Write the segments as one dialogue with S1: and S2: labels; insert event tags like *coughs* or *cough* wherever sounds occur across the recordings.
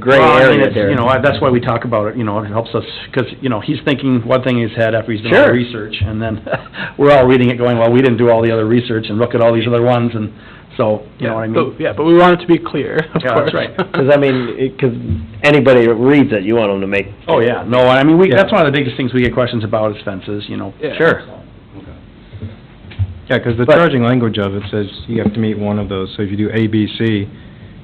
S1: gray
S2: Well, I mean,
S1: area
S2: it's,
S1: there.
S2: You know, I- that's why we talk about it, you know, it helps us, because, you know, he's thinking one thing in his head after he's done all the
S1: Sure.
S2: research, and then *laughs* we're all reading it going, well, we didn't do all the other research, and look at all these other ones, and so, you know what I
S3: Yeah,
S2: mean?
S3: but- Yeah, but we want it to be clear, of
S2: Yeah, that's
S3: course. *laughs*
S2: right.
S1: Because I mean, because anybody that reads it, you want them to make,
S2: Oh, yeah, no, I mean, we,
S1: Yeah.
S2: that's one of the biggest things we get questions about is fences, you know.
S3: Yeah.
S1: sure.
S4: Yeah, because the
S1: But-
S4: charging language of it says you have to meet one of those, so if you do A, B, C,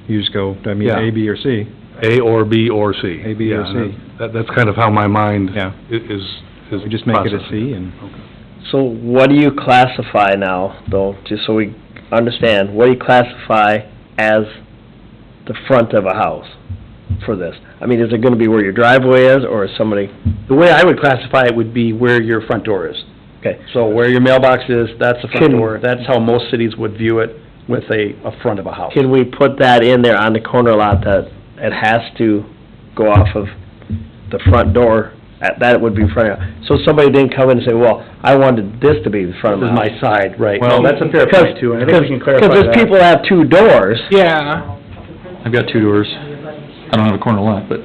S4: you just go, I mean,
S5: Yeah.
S4: A, B, or C.
S5: A or B or C.
S4: A, B, or
S5: Yeah,
S4: C.
S5: That, that's kind of how my mind
S4: Yeah.
S5: i- is, is
S4: We just make it a
S5: processing.
S4: C and,
S1: So what do you classify now, though, just so we understand, what do you classify as the front of a house for this? I mean, is it gonna be where your driveway is, or is somebody,
S2: The way I would classify it would be where your front door is.
S1: okay,
S2: So where your mailbox is, that's the front
S1: Can-
S2: door, that's how most cities would view it with a, a front of a house.
S1: can we put that in there on the corner lot that it has to go off of the front door? That, that would be front, of- so somebody didn't come in and say, well, I wanted this to be the front of
S2: This
S1: my
S2: is
S1: house.
S2: my side, right.
S5: Well-
S2: No, that's a fair point too, and I think we can clarify that.
S1: Because there's people that have two doors,
S3: Yeah,
S6: I've got two doors. I don't have a corner lot, but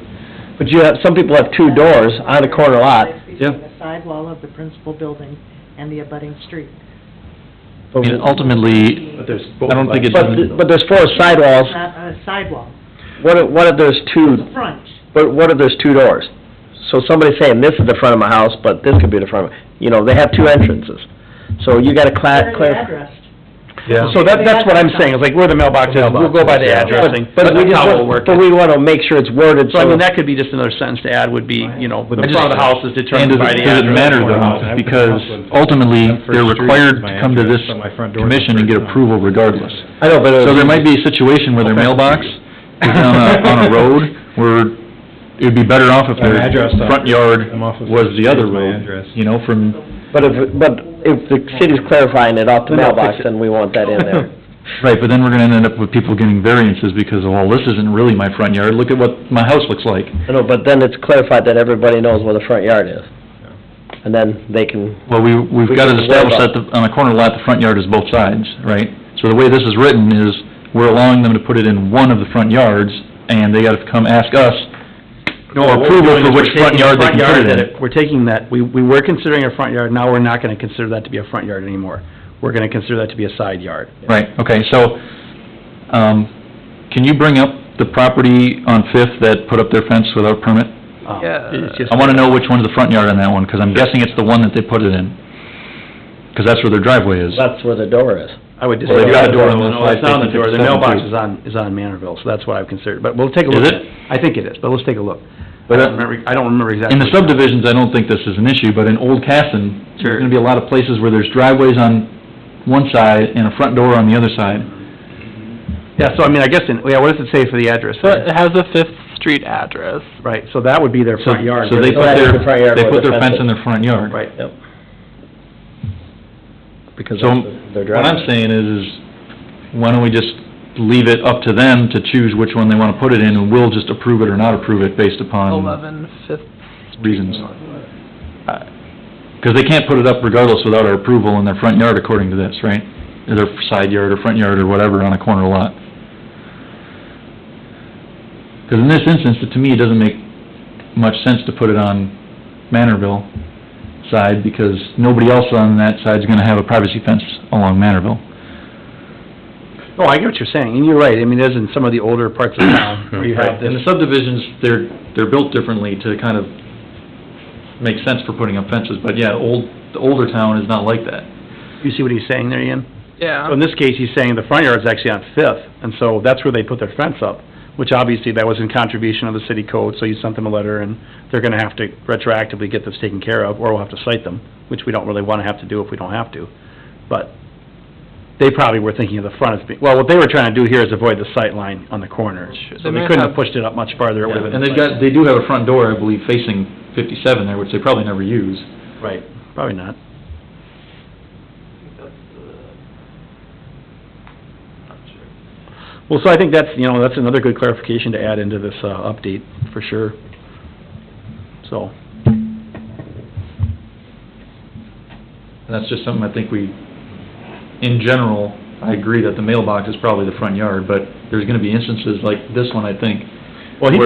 S1: but you have, some people have two doors on a corner lot.
S6: Yeah.
S7: Between the sidewall of the principal building and the abutting street.
S6: I mean, ultimately,
S2: But there's
S6: I don't think it
S1: But, but there's four sidewalls,
S7: Not a sidewall,
S1: what if, what if there's two,
S7: front.
S1: but what if there's two doors? So somebody's saying, this is the front of my house, but this could be the front of, you know, they have two entrances. So you gotta cla-
S7: Clearly
S1: clarify.
S7: addressed.
S5: Yeah.
S2: So that, that's what I'm saying, is like where the mailbox is, we'll go by the
S5: yeah.
S2: addressing,
S1: But
S2: but
S1: we
S2: that's
S1: just,
S2: how we'll
S1: want-
S2: work
S1: but
S2: it.
S1: we wanna make sure it's worded,
S2: So I
S1: so,
S2: mean, that could be just another sentence to add would be, you know, the
S6: I just-
S2: front of the house is
S6: and
S2: determined
S6: does
S2: by the
S6: it,
S2: address.
S6: does it matter though? Because ultimately,
S4: That first
S6: they're
S4: street
S6: required
S4: is my
S6: to come to
S4: address,
S6: this
S4: so my front door is the
S6: commission and
S4: first
S6: get
S4: one.
S6: approval regardless.
S1: I know, but. it
S6: So
S1: would
S6: there
S1: be-
S6: might be a situation where their mailbox is on a, on a road where it'd be better off if their
S4: My address off-
S6: front yard
S4: I'm off of
S6: was the other
S4: Street, my
S6: road,
S4: address.
S6: you know, from,
S1: But if, but if the city's clarifying it off the mailbox, then we want that in there.
S6: right, but then we're gonna end up with people getting variances because, well, this isn't really my front yard, look at what my house looks like.
S1: *laughs* I know, but then it's clarified that everybody knows where the front yard is. And then they can,
S6: Well, we, we've
S1: We
S6: got
S1: can
S6: to
S1: worry
S6: establish
S1: about-
S6: that the- on a corner lot, the front yard is both sides, right? So the way this is written is, we're allowing them to put it in one of the front yards, and they got to come ask us
S2: No, what we're
S6: approval
S2: doing is
S6: for
S2: we're
S6: which
S2: taking
S6: front
S2: the
S6: yard they
S2: front
S6: can put
S2: yard
S6: it in.
S2: that We're taking that, we, we were considering a front yard, now we're not gonna consider that to be a front yard anymore. We're gonna consider that to be a side yard.
S6: Right, okay, so, um, can you bring up the property on Fifth that put up their fence without permit?
S2: Um,
S3: Yeah.
S2: it's just-
S6: I wanna know which one's the front yard on that one, because I'm guessing it's the one that they put it in, because that's where their driveway is.
S1: that's where the door is.
S2: I would just.
S6: Well, they've got a door on one
S2: No,
S6: side,
S2: it's not on the
S6: they can
S2: door, the
S6: fit seven
S2: mailbox
S6: feet.
S2: is on, is on Manorville, so that's what I've considered, but we'll take a
S6: Is
S2: look.
S6: it?
S2: at I think it is, but let's take a look. I
S6: But, uh,
S2: don't remember, I don't remember exactly.
S6: In the subdivisions, I don't think this is an issue, but in Old Casson,
S2: Sure.
S6: there's gonna be a lot of places where there's driveways on one side and a front door on the other side.
S2: Yeah, so I mean, I guess, in- yeah, what does it say for the address?
S3: so it has a Fifth Street address.
S2: Right, so that would be their
S6: So,
S2: front yard.
S6: so they
S1: So
S6: put
S1: that's
S6: their,
S1: the front yard
S6: they
S1: where
S6: put
S1: the
S6: their
S1: fence
S6: fence in
S1: is.
S6: their front yard.
S2: Right.
S1: Yep. Because
S6: So,
S1: that's their
S6: what
S1: driveway.
S6: I'm saying is, is why don't we just leave it up to them to choose which one they wanna put it in, and we'll just approve it or not approve it based upon
S3: Eleven Fifth.
S6: reasons. Uh, Cause they can't put it up regardless without our approval in their front yard according to this, right? Or Their side yard or front yard or whatever on a corner lot. Cause in this instance, it- to me, it doesn't make much sense to put it on Manorville side, because nobody else on that side's gonna have a privacy fence along Manorville.
S2: Oh, I get what you're saying, and you're right, I mean, it is in some of the older parts of
S6: *coughs*
S2: town where you have
S6: And
S2: this.
S6: the subdivisions, they're, they're built differently to kind of make sense for putting up fences, but yeah, old, the older town is not like that.
S2: You see what he's saying there, Ian? So
S3: Yeah,
S2: In this case, he's saying the front yard's actually on Fifth, and so that's where they put their fence up, which obviously that was in contribution of the city code, so you sent them a letter, and they're gonna have to retroactively get this taken care of, or we'll have to cite them, which we don't really wanna have to do if we don't have to. But they probably were thinking of the front as being, well, what they were trying to do here is avoid the sight line on the corner.
S3: Sure.
S2: So they
S3: They may
S2: couldn't have
S3: have-
S2: pushed it up much farther, it would've been.
S6: And they've got, they do have a front door, I believe, facing fifty-seven there, which they probably never use.
S2: Right, probably not. Well, so I think that's, you know, that's another good clarification to add into this, uh, update, for sure. So,
S6: And that's just something I think we, in general, I agree that the mailbox is probably the front yard, but there's gonna be instances like this one, I think,
S2: well, he
S6: Where-